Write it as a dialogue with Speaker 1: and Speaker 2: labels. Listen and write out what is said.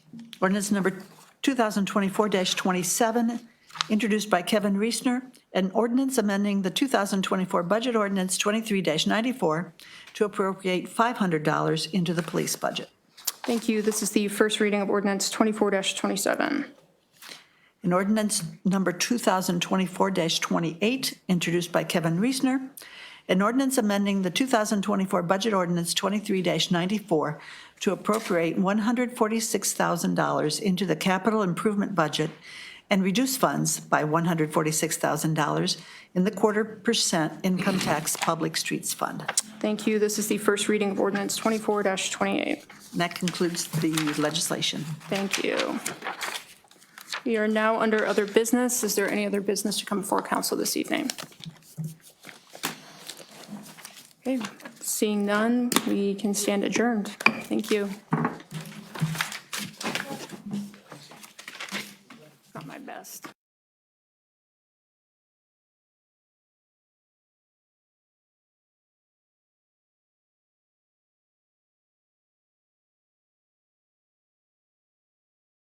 Speaker 1: Ordinance number 2024-27, introduced by Kevin Reesner, an ordinance amending the 2024 budget ordinance 23-94 to appropriate $500 into the police budget.
Speaker 2: Thank you. This is the first reading of ordinance 24-27.
Speaker 1: An ordinance number 2024-28, introduced by Kevin Reesner, an ordinance amending the 2024 Budget Ordinance 23-94 to appropriate $146,000 into the capital improvement budget and reduce funds by $146,000 in the quarter percent income tax public streets fund.
Speaker 2: Thank you. This is the first reading of ordinance 24-28.
Speaker 1: And that concludes the legislation.
Speaker 2: Thank you. We are now under other business. Is there any other business to come before council this evening? Okay, seeing none, we can stand adjourned. Thank you. Not my best.